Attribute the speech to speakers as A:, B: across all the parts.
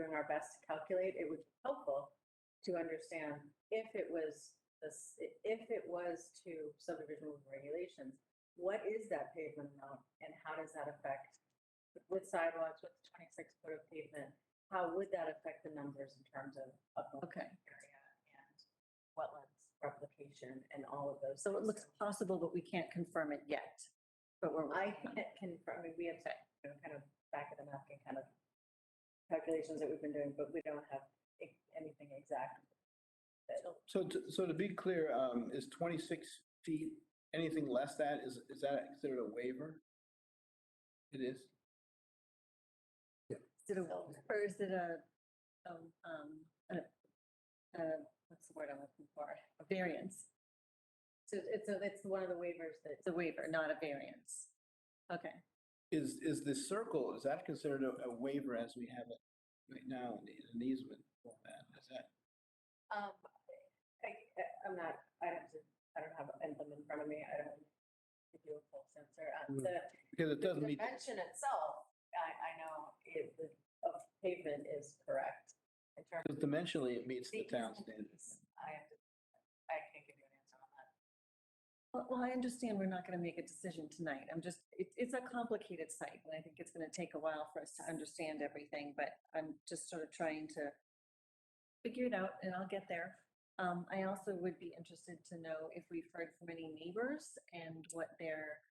A: our best to calculate, it would be helpful to understand if it was this, if it was to subdivision rules and regulations, what is that pavement amount and how does that affect with sidewalks, with twenty-six foot of pavement? How would that affect the numbers in terms of upland
B: Okay.
A: area and wetlands replication and all of those?
B: So it
A: things?
B: looks possible, but we can't confirm it yet. But we're,
A: I can't confirm, I mean, we have, you know, kind of back of the napkin kind of calculations that we've been doing, but we don't have e- anything exact. that-
C: So, to- so to be clear, um, is 26 feet, anything less that, is, is that considered a waiver? It is?
B: did a, or is it a, a, um, a, a- what's the word I'm looking for? A variance.
A: So it's, so that's one of the waivers that,
B: It's a waiver, not a variance. Okay,
C: Is, is the circle, is that considered a a waiver as we have it right now in the- in an easement format? Is that,
A: um, I, I'm not, I don't, I don't have them in front of me, I don't give you a full censor. Uh,
C: Mm.
A: The,
C: because it
A: the
C: doesn't meet,
A: dimension itself, I, I know it, the- of pavement is correct in terms
C: because dimensionally, it meets the town standards.
A: I have to, I can't give you an answer on that.
B: well, well, I understand we're not going to make a decision tonight. I'm just, it, it's a complicated site and I think it's going to take a while for us to understand everything, but I'm just sort of trying to figure it out and I'll get there. Um, I also would be interested to know if we've heard from any neighbors and what their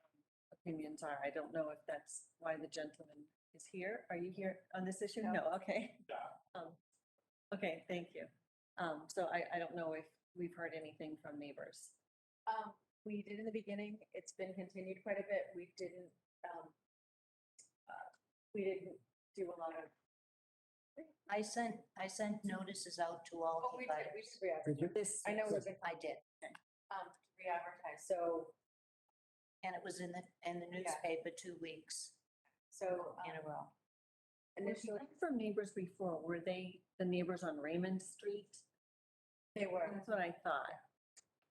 B: um, opinions are. I don't know if that's why the gentleman is here. Are you here on this issue?
A: No.
B: No, okay. Um, Okay, thank you. Um, so I, I don't know if we've heard anything from neighbors.
A: Um, we did in the beginning, it's been continued quite a bit, we didn't, um, uh, we didn't do a lot of.
D: I sent, I sent notices out to all the
A: We
D: butters.
A: just re-advertised,
B: This.
A: I know we've been,
D: I did,
A: um, re-advertised, so,
D: and it was in the, in the newspaper two weeks
A: so
D: in a
A: um,
D: row.
A: initially,
B: From neighbors before, were they the neighbors on Raymond Street?
A: they were,
B: That's what I thought.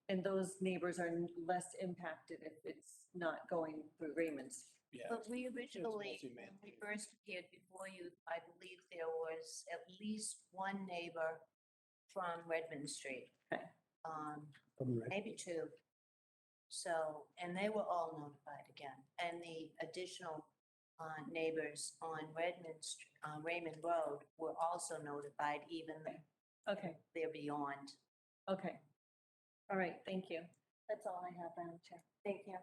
B: And those neighbors are less impacted if it's not going through Raymond's.
C: Yeah.
D: But we originally, when
C: multi-man.
D: we first appeared before you, I believe there was at least one neighbor from Redmond Street.
B: Okay.
D: Um,
E: From the-
D: maybe two. So, and they were all notified again, and the additional uh, neighbors on Redmond, Str- uh, Raymond Road were also notified, even
B: Okay,
D: they're beyond.
B: okay. All right, thank you. That's all I have, Madam Chair.
F: Thank you.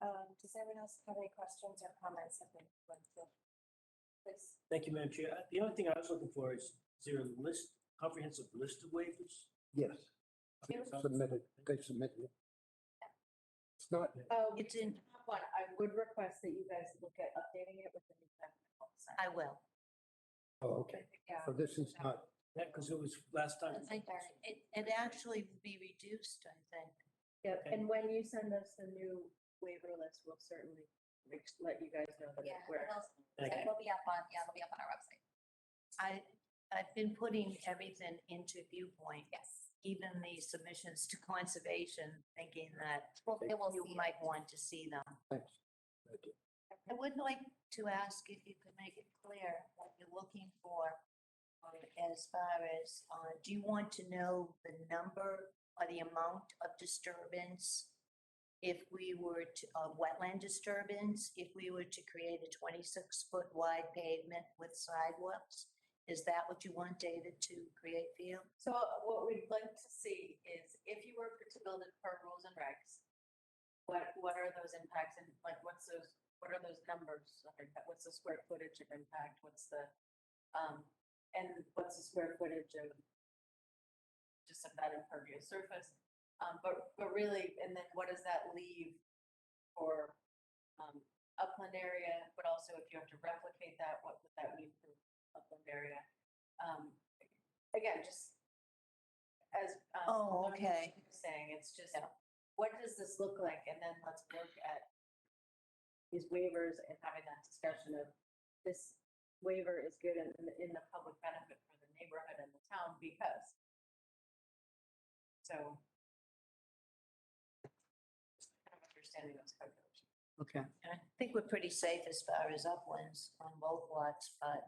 F: Um, does anyone else have any questions or comments that they want to? Please,
G: Thank you, Madam Chair. Uh, The only thing I was looking for is, is there a list, comprehensive list of waivers?
E: Yes,
G: Okay, so-
E: submitted, they submitted it. It's not,
A: um,
D: It's in,
A: one, I would request that you guys look at updating it with the new. technical design.
D: I will.
E: oh, okay,
A: Yeah,
E: so this is not,
G: Yeah, because it was last time.
D: It, it actually would be reduced, I think.
A: yeah, and when you send us the new waiver list, we'll certainly re- let you guys know that it
F: yeah,
A: where.
G: Thank you.
F: it'll be up on, yeah, it'll be up on our website,
D: I, I've been putting everything into viewpoint,
F: yes.
D: even the submissions to conservation, thinking that
F: Well, they will
D: you
F: see.
D: might want to see them.
E: thanks. Thank you.
D: I would like to ask if you could make it clear what you're looking for um, as far as, uh, do you want to know the number or the amount of disturbance? If we were to, of wetland disturbance, if we were to create a 26-foot wide pavement with sidewalks? Is that what you want, David, to create for you?
A: So uh, what we'd like to see is if you were to build it per rules and regs, what, what are those impacts and like, what's those, what are those numbers? of impact? What's the square footage of impact? What's the, um, and what's the square footage of just of that impervious surface? Um, but, but really, and then what does that leave for, um, upland area? But also if you have to replicate that, what would that mean for upland area? Um, again, just as. um,
D: Oh,
A: Lorna was
D: okay.
A: Saying, it's just, what does this look like? And then let's look at these waivers and having that discussion of this waiver is good in, in- in the public benefit for the neighborhood and the town because. So. just Kind of understanding those calculations.
C: Okay.
D: I think we're pretty safe as far as uplands on both lots, but